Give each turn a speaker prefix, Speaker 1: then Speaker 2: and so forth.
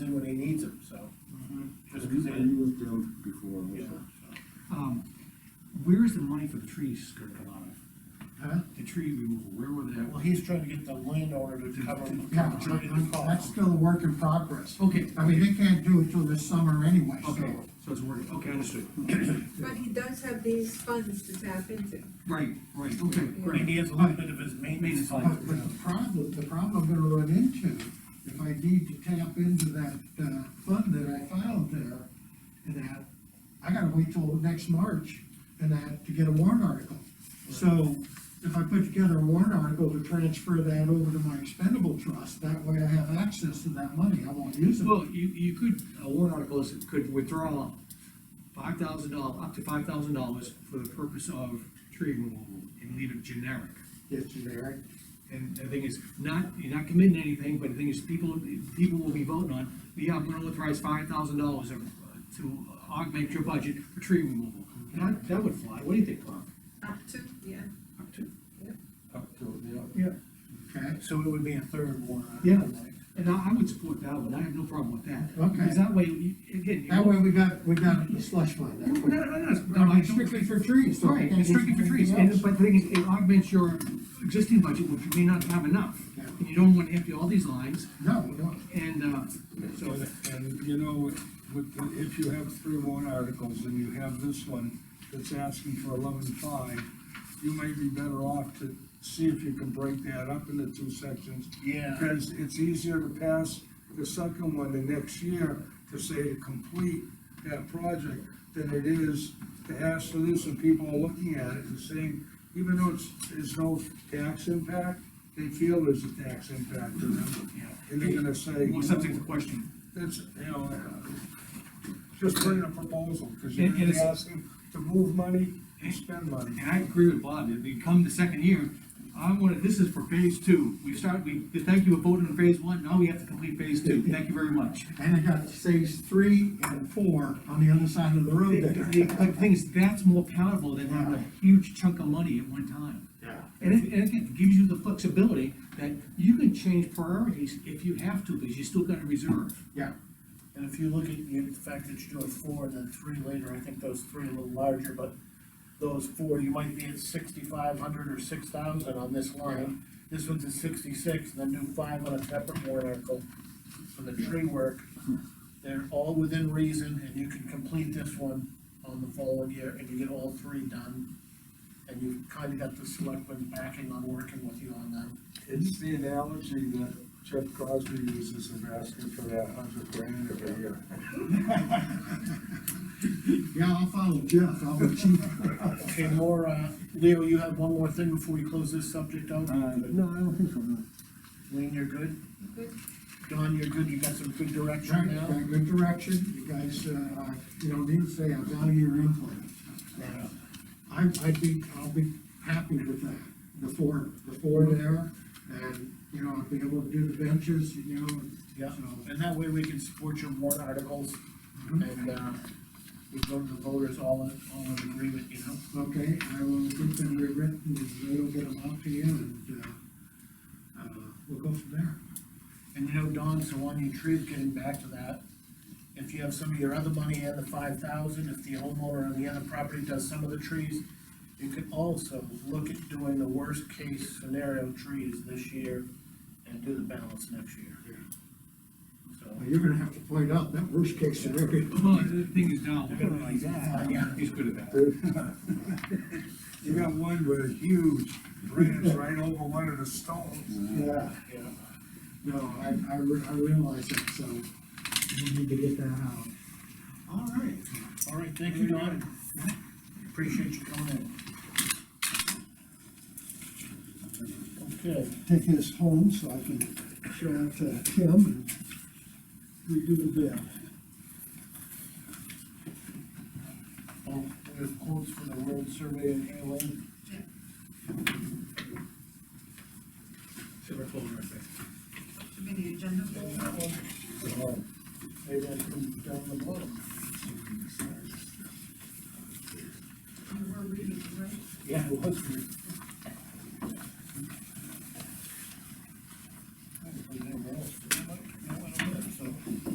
Speaker 1: Mm-hmm.
Speaker 2: you- I used them before
Speaker 1: Yeah,
Speaker 2: also.
Speaker 1: so.
Speaker 3: Um, where is the money for the trees gonna come out of?
Speaker 2: Huh?
Speaker 3: The tree removal, where would that?
Speaker 1: Well, he's trying to get the landowner to cover,
Speaker 2: Yeah,
Speaker 1: cover joint in the
Speaker 2: that's
Speaker 1: cost.
Speaker 2: still a work in progress.
Speaker 3: Okay.
Speaker 2: I mean, they can't do it till this summer anyway, so.
Speaker 3: Okay, so it's working, okay, understood.
Speaker 4: But he does have these funds to tap into.
Speaker 3: Right, right, okay,
Speaker 1: And
Speaker 3: great.
Speaker 1: he has a little bit of his maintenance.
Speaker 3: Maintenance
Speaker 1: fund.
Speaker 2: But, but the problem, the problem I'm gonna run into, if I need to tap into that, uh, fund that I filed there, and that, I gotta wait till next March, and that, to get a warrant article. So, if I put together a warrant article to transfer that over to my expendable trust, that way I have access to that money, I won't use it.
Speaker 3: Well, you, you could, a warrant article is, could withdraw five thousand dollars, up to five thousand dollars for the purpose of tree removal and leave it generic.
Speaker 2: It's generic.
Speaker 3: And the thing is, not, you're not committing anything, but the thing is, people, people will be voting on, yeah, I'm gonna authorize five thousand dollars to augment your budget for tree removal. That, that would fly, what do you think, Clark?
Speaker 4: Up to, Ah, yeah.
Speaker 3: Up to?
Speaker 4: Yep.
Speaker 3: Up to, yeah. Yeah,
Speaker 2: Okay,
Speaker 1: So it would be a third one.
Speaker 3: Yeah. and I, I would support that one, I have no problem with that.
Speaker 2: Okay.
Speaker 3: Because that way, you- again. you-
Speaker 2: that way we got, we got the slush fund.
Speaker 3: No,
Speaker 2: that way.
Speaker 3: no, no, no, no, I don't-
Speaker 2: Strictly for trees, so. I
Speaker 3: Right,
Speaker 2: can't
Speaker 3: it's strictly for
Speaker 2: use
Speaker 3: trees,
Speaker 2: anything
Speaker 3: and,
Speaker 2: else.
Speaker 3: but the thing is, it augments your existing budget, which you may not have enough.
Speaker 2: Yeah.
Speaker 3: And you don't wanna empty all these lines,
Speaker 2: No, no,
Speaker 3: and, uh, so.
Speaker 5: And, and you know, with- with, the- if you have three warrant articles and you have this one that's asking for eleven-five, you may be better off to see if you can break that up into two sections.
Speaker 1: Yeah.
Speaker 5: Because it's easier to pass the second one the next year to say to complete that project than it is to ask for this and people are looking at it and saying, even though it's, there's no tax impact, they feel there's a tax impact to them. And they're gonna say.
Speaker 3: More subject to question.
Speaker 5: That's, you know, uh, just put in a proposal, because you're
Speaker 3: And- and
Speaker 5: gonna be
Speaker 3: it's-
Speaker 5: asking to move money and spend money.
Speaker 3: And I agree with Bob, if we come the second year, I wanna, this is for phase two, we start, we, thank you for voting on phase one, now we have to complete phase two, thank you very much.
Speaker 2: and I got stage three and four on the other side of the
Speaker 3: The
Speaker 2: road there.
Speaker 3: the thing is, that's more palatable than having a huge chunk of money at one time.
Speaker 2: Yeah.
Speaker 3: And it, and it gives you the flexibility that you can change priorities if you have to, because you still got a reserve.
Speaker 2: Yeah,
Speaker 1: And if you look at the the fact that you're doing four and then three later, I think those three are a little larger, but those four, you might be at sixty-five hundred or six thousand on this line. This one's at sixty-six, and then do five on a separate warrant article for the tree work. They're all within reason, and you can complete this one on the following year, and you get all three done. And you've kind of got the selectmen backing on working with you on them.
Speaker 5: It's the analogy that Jeff Crosby uses of asking for that hundred grand every year.
Speaker 2: yeah, I'll follow Jeff, I'll be chief.
Speaker 1: Okay, more, uh, Leo, you have one more thing before we close this subject out?
Speaker 5: I don't think so, no.
Speaker 1: Lean, you're good?
Speaker 4: Good.
Speaker 1: Don, you're good, you got some good
Speaker 2: Got
Speaker 1: direction now?
Speaker 2: good direction, you guys, uh, I- you know, need to say, I value your input.
Speaker 1: Yeah.
Speaker 2: I, I'd be, I'll be happy with that, the four, the four there, and, you know, I'll be able to do the benches, you know, and
Speaker 1: Yeah,
Speaker 2: so.
Speaker 1: and that way we can support your warrant articles,
Speaker 2: Mm-hmm.
Speaker 1: and, uh, we go to the voters all in, all in agreement, you know?
Speaker 2: Okay, I will get them rewritten, and they'll get them out to you, and, uh, uh, we'll go from there.
Speaker 1: And you know, Don, so on your trees, getting back to that, if you have some of your other money and the five thousand, if the homeowner on the other property does some of the trees, you could also look at doing the worst case scenario trees this year and do the balance next year. So.
Speaker 2: Well, You're gonna have to point out that worst case scenario.
Speaker 3: Well, the thing is now,
Speaker 1: Yeah.
Speaker 3: he's good at that.
Speaker 5: You got one with a huge branch right over one of the stones.
Speaker 2: Yeah.
Speaker 1: Yeah.
Speaker 2: No, I, I, re- I realize that, so we need to get that out. All right.
Speaker 1: All right, thank you, Don. Appreciate you coming in. Okay,
Speaker 2: Take this home so I can show it to Tim and redo the bill. Oh,
Speaker 1: well, we have quotes for the road survey in Halen.
Speaker 3: Silver folder, I think.
Speaker 4: Should be the agenda folder.
Speaker 1: Maybe I can down the bottom.
Speaker 4: You were reading, right?
Speaker 1: Yeah, it was. great.